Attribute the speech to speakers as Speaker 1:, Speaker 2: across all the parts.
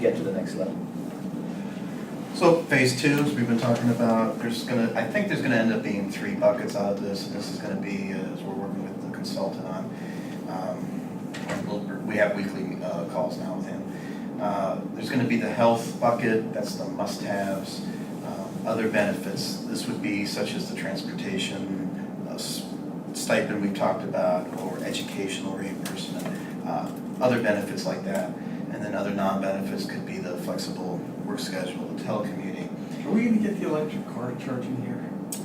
Speaker 1: get to the next level.
Speaker 2: So phase two, as we've been talking about, there's gonna, I think there's gonna end up being three buckets out of this, and this is gonna be, uh, as we're working with the consultant on, um, we'll- we have weekly uh, calls now with him. Uh, There's gonna be the health bucket, that's the must-haves, um, other benefits, this would be such as the transportation uh, s- stipend we've talked about, or educational reimbursement, uh, other benefits like that. And then other non-benefits could be the flexible work schedule, the telecommuting.
Speaker 3: Are we gonna get the electric car charging here?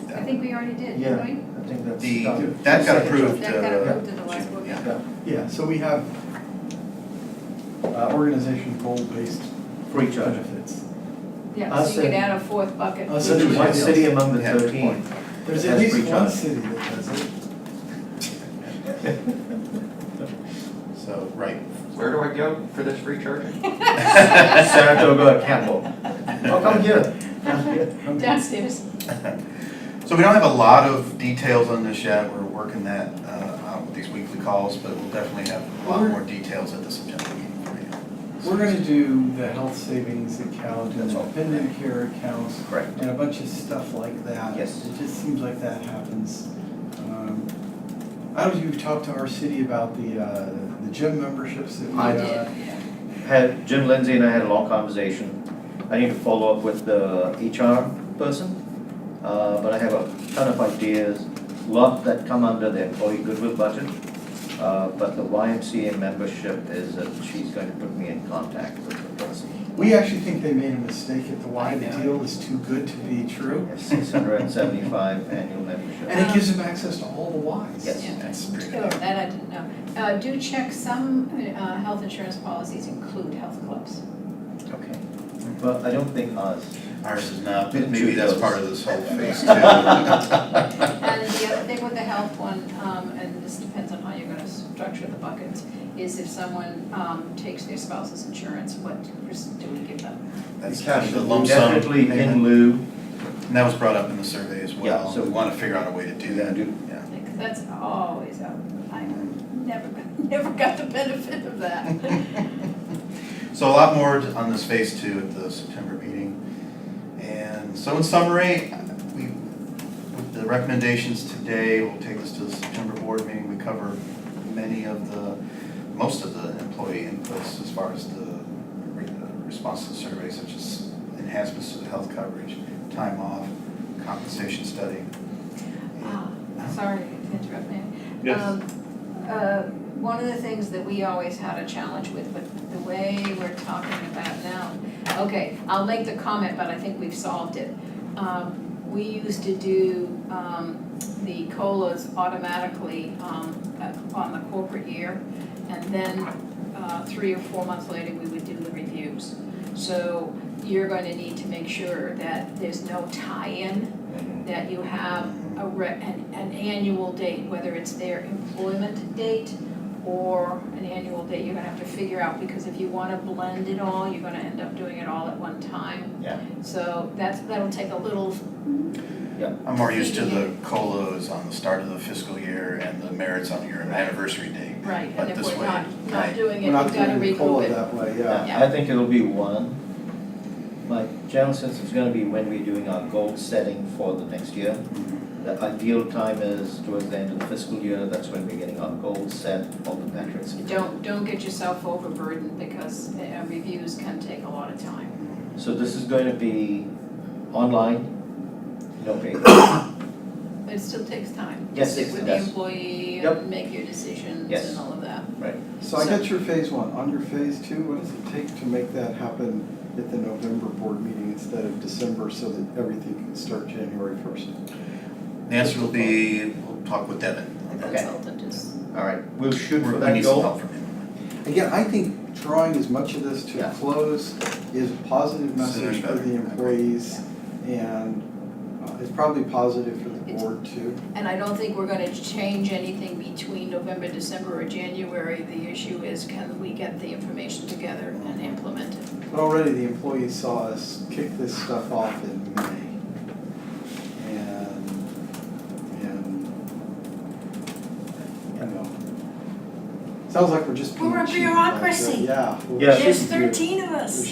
Speaker 2: that-
Speaker 4: I think we already did,
Speaker 3: Yeah.
Speaker 4: didn't we?
Speaker 1: I think that's.
Speaker 2: The,
Speaker 1: done.
Speaker 2: that got approved.
Speaker 4: That got
Speaker 2: uh,
Speaker 4: approved in the last book.
Speaker 2: yeah.
Speaker 1: Yeah,
Speaker 3: Yeah, so we have uh, organization goal-based
Speaker 1: for each other.
Speaker 3: benefits.
Speaker 4: Yeah,
Speaker 3: I'll
Speaker 4: so you could
Speaker 3: say-
Speaker 4: add a fourth bucket.
Speaker 3: I'll
Speaker 1: So
Speaker 3: say-
Speaker 1: there's one city among the
Speaker 2: Yeah, good
Speaker 1: thirteen.
Speaker 3: There's
Speaker 1: that has
Speaker 3: at least
Speaker 1: free
Speaker 3: one
Speaker 1: charge.
Speaker 3: city that does it.
Speaker 2: So, right.
Speaker 5: Where do I go for this free charging?
Speaker 1: Saratoga, Campbell. Oh, come here. Come here.
Speaker 4: Downstairs.
Speaker 2: So we don't have a lot of details on this yet. We're working that uh, out with these weekly calls, but we'll definitely have a lot more details at the September meeting for you.
Speaker 3: We're gonna do the health savings account and
Speaker 2: That's all.
Speaker 3: dependent care accounts
Speaker 1: Correct.
Speaker 3: and a bunch of stuff like that.
Speaker 1: Yes.
Speaker 3: It just seems like that happens. Um, I don't know if you've talked to our city about the, uh, the gym memberships that we,
Speaker 1: I
Speaker 3: uh,
Speaker 1: Had, Jim Lindsay and I had a long conversation. I need to follow up with the HR person. Uh, but I have a ton of ideas, lot that come under the employee goodwill budget. Uh, but the YMCA membership is that she's going to put me in contact with the person.
Speaker 3: We actually think they made a mistake at the why
Speaker 4: I
Speaker 3: the
Speaker 4: know.
Speaker 3: deal is too good to be true.
Speaker 1: Six hundred and seventy-five annual membership.
Speaker 3: And it gives them access to all the whys.
Speaker 1: Yes.
Speaker 4: Yeah.
Speaker 2: That's pretty
Speaker 4: Oh,
Speaker 2: good.
Speaker 4: that I didn't know. Uh, do check, some, uh, health insurance policies include health clubs.
Speaker 1: Okay. But I don't think uh, ours.
Speaker 2: Ours is not,
Speaker 1: Been
Speaker 2: but maybe
Speaker 1: two
Speaker 2: that's
Speaker 1: goes.
Speaker 2: part of this whole phase two.
Speaker 4: And the other thing with the health one, um, and this depends on how you're gonna structure the buckets, is if someone, um, takes their spouse's insurance, what do we give them?
Speaker 2: That's
Speaker 3: Cash
Speaker 2: kind of the lump sum.
Speaker 1: Definitely in
Speaker 2: payment.
Speaker 1: lieu.
Speaker 2: And that was brought up in the survey as
Speaker 1: Yeah,
Speaker 2: well.
Speaker 1: so-
Speaker 2: We want to figure out a way to do that.
Speaker 1: Do-
Speaker 2: Yeah.
Speaker 4: Like, that's always out, I never, got- never got the benefit of that.
Speaker 2: So a lot more on this phase two at the September meeting. And so in summary, we, with the recommendations today, we'll take this to the September board meeting. We cover many of the, most of the employee inputs as far as the re- uh, response to the survey, such as enhancements to the health coverage, time off, compensation study.
Speaker 4: Ah, Sorry to interrupt, Nick. Um, uh, One of the things that we always had a challenge with, but the way we're talking about now, okay, I'll make the comment, but I think we've solved it. Um, We used to do um, the COLAs automatically um, uh, on the corporate year, and then uh, three or four months later, we would do the reviews. So you're going to need to make sure that there's no tie-in that you have a re, an, an annual date, whether it's their employment date or an annual date, you're gonna have to figure out, because if you wanna blend it all, you're gonna end up doing it all at one time.
Speaker 1: Yeah.
Speaker 4: So that's, that'll take a little,
Speaker 2: I'm more used to the COLAs on the start of the fiscal year and the merits on your anniversary date.
Speaker 4: right, and
Speaker 2: But
Speaker 4: if
Speaker 2: this
Speaker 4: we're
Speaker 2: way,
Speaker 4: not,
Speaker 2: right.
Speaker 4: not doing it,
Speaker 3: We're
Speaker 4: we've
Speaker 3: not doing
Speaker 4: gotta
Speaker 3: the
Speaker 4: regroup
Speaker 3: COLA
Speaker 4: it.
Speaker 3: that way, yeah.
Speaker 4: Yeah.
Speaker 1: I think it'll be one. My general sense is gonna be when we're doing our goal setting for the next year. The ideal time is towards the end of the fiscal year, that's when we're getting our goals set, all the metrics.
Speaker 4: Don't, don't get yourself overburdened, because uh, reviews can take a lot of time.
Speaker 1: So this is going to be online, no paper.
Speaker 4: But it still takes time. to
Speaker 1: Yes,
Speaker 4: Sit
Speaker 1: it
Speaker 4: with the
Speaker 1: does.
Speaker 4: employee
Speaker 1: Yep.
Speaker 4: and make your decisions
Speaker 1: Yes.
Speaker 4: and all of that.
Speaker 3: So I
Speaker 4: So-
Speaker 3: got your phase one. On your phase two, what does it take to make that happen at the November board meeting instead of December so that everything can start January first?
Speaker 2: The answer will be, we'll talk with Devin on
Speaker 4: The
Speaker 2: that.
Speaker 1: Okay.
Speaker 4: consultant is
Speaker 1: All right, we'll shoot for
Speaker 2: We
Speaker 1: that
Speaker 2: need some
Speaker 1: goal.
Speaker 2: help from him.
Speaker 3: Again, I think drawing as much of this to a
Speaker 1: Yeah.
Speaker 3: close is a positive message for
Speaker 2: better.
Speaker 3: the employees and uh, it's probably positive for the board too.
Speaker 4: And I don't think we're gonna change anything between November, December, or January. The issue is can we get the information together and implement it?
Speaker 3: But already the employees saw us kick this stuff off in May. And, and, you know. Sounds like we're just being
Speaker 4: We're a
Speaker 3: cheap, like, uh,
Speaker 4: bureaucracy.
Speaker 3: Yeah. we're
Speaker 1: Yeah.
Speaker 3: cheap here.
Speaker 4: of us.